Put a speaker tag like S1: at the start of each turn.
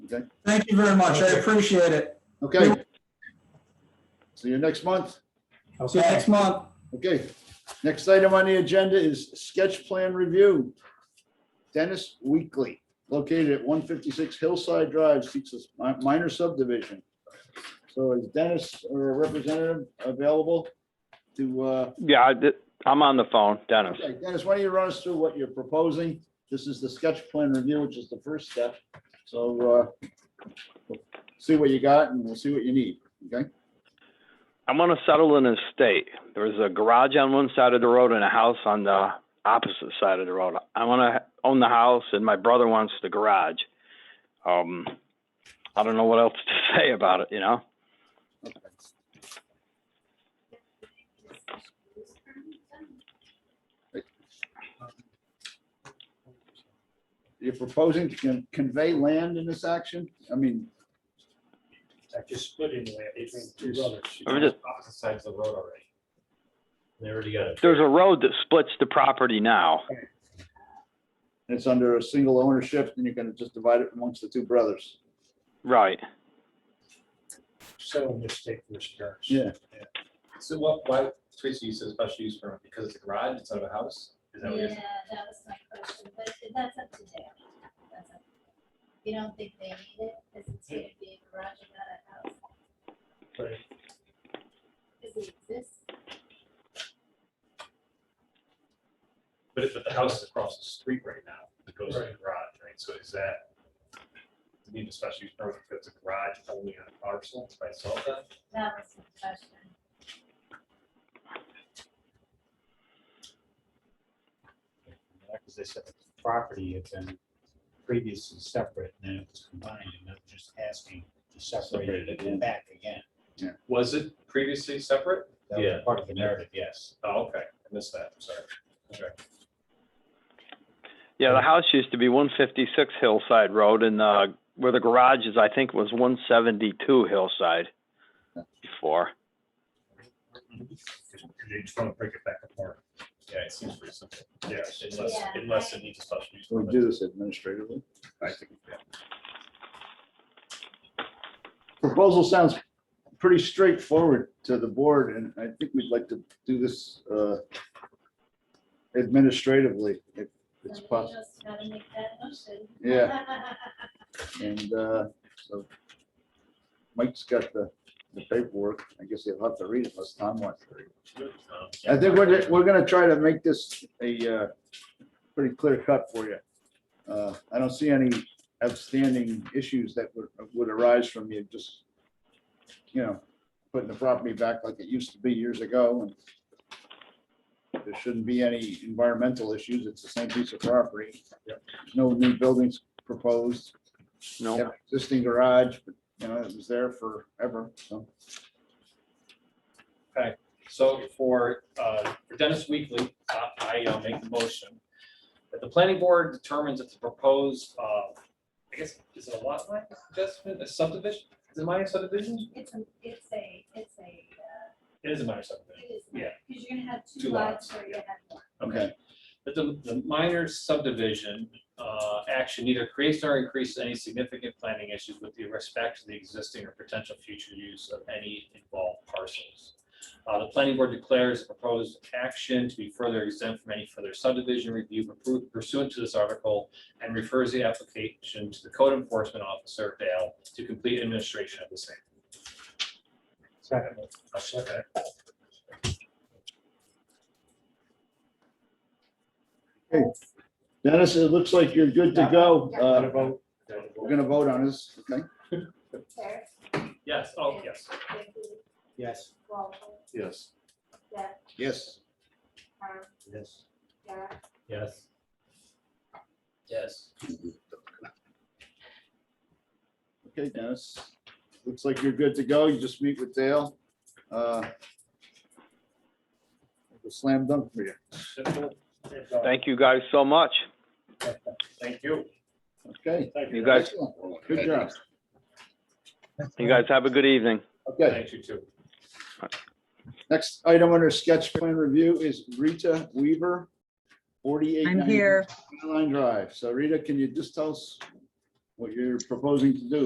S1: Okay,
S2: Thank you very much. I appreciate it.
S1: okay. See you next month.
S2: See you next month.
S1: Okay, next item on the agenda is sketch plan review. Dennis Weekly, located at one fifty-six Hillside Drive, seeks a mi- minor subdivision. So is Dennis or a representative available to, uh,
S3: Yeah, I did- I'm on the phone, Dennis.
S1: okay, Dennis, why don't you run us through what you're proposing? This is the sketch plan review, which is the first step. So, uh, see what you got and we'll see what you need, okay?
S3: I'm gonna settle an estate. There's a garage on one side of the road and a house on the opposite side of the road. I wanna own the house and my brother wants the garage. Um, I don't know what else to say about it, you know?
S1: You're proposing to con- convey land in this action? I mean,
S4: I just split in there between two brothers.
S3: I'm just-
S4: Opposite sides of the road already. They already got it.
S3: There's a road that splits the property now.
S1: it's under a single ownership and you're gonna just divide it amongst the two brothers.
S3: Right.
S4: So mistake for parents.
S1: Yeah.
S5: So what, why, Teresa, you said special use permit, because it's a garage instead of a house? Is
S6: Yeah,
S5: that what you're saying?
S6: that was my question, but it- that's up to them. That's up to them. You don't think they need it, because it's gonna be a garage and not a house,
S4: But
S6: because it exists.
S5: But if, but the house is across the street right now, it goes to the
S4: Right.
S5: garage, right? So is that, do you need a special use permit if it's a garage only on a parcel by itself then?
S6: That was the question.
S4: Because they said the property had been previously separate and then it was combined and they're just asking to separate it and back again.
S5: Was it previously separate?
S4: That was Part of the narrative, yes.
S5: Oh, okay, I missed that, I'm sorry. Okay.
S3: Yeah, the house used to be one fifty-six Hillside Road and, uh, where the garage is, I think was one seventy-two Hillside before.
S5: You just want to break it back apart. Yeah, it seems pretty simple. Yeah, unless,
S6: Yeah.
S5: unless it needs a special use
S1: So
S5: permit.
S1: we do this administratively.
S5: I think, yeah.
S1: Proposal sounds pretty straightforward to the board and I think we'd like to do this uh, administratively if it's
S6: Somebody
S1: possible.
S6: else gotta make that motion.
S1: Yeah. And uh, so Mike's got the the paperwork. I guess he'll have to read it unless Tom wants to read it. I think we're, we're gonna try to make this a uh, pretty clear cut for you. Uh, I don't see any outstanding issues that would, would arise from you just, you know, putting the property back like it used to be years ago. and There shouldn't be any environmental issues. It's the same piece of property. No new buildings proposed.
S3: No.
S1: Have Existing garage, but, you know, it was there forever, so.
S5: So for, uh, for Dennis Weekly, uh, I uh, make the motion that the planning board determines that the proposed, uh, I guess, is it a lot line adjustment, a subdivision? Is it minor subdivision?
S6: It's a, it's a, it's a, uh,
S5: It is a minor subdivision.
S6: it is,
S5: Yeah.
S6: because you're gonna have
S5: Two
S6: two lots
S5: lots,
S6: or you have one.
S1: Okay.
S5: That the, the minor subdivision, uh, action neither creates nor increases any significant planning issues with the respect to the existing or potential future use of any involved parcels. Uh, the planning board declares the proposed action to be further exempt from any further subdivision review pursuant to this article and refers the application to the code enforcement officer, Dale, to complete administration of the same.
S4: Second.
S5: Okay.
S1: Hey. Dennis, it looks like you're good to go.
S4: What
S1: Uh,
S4: about?
S1: We're gonna vote on this, okay?
S6: Terry,
S5: Yes, oh, yes.
S6: Vicky,
S4: Yes.
S6: Walter,
S4: Yes.
S6: Deb,
S1: Yes.
S6: Tom,
S4: Yes.
S6: Jack,
S5: Yes. Yes.
S1: Okay, Dennis, looks like you're good to go. You just meet with Dale. Uh, it's a Slam dunk for you.
S3: Thank you guys so much.
S5: Thank you.
S1: Okay.
S4: Thank
S3: You guys,
S1: excellent. Good job.
S3: you guys have a good evening.
S1: Okay,
S5: Thank you too.
S1: next item under sketch plan review is Rita Weaver, 48.
S7: I'm here.
S1: Line Drive. So Rita, can you just tell us what you're proposing to do?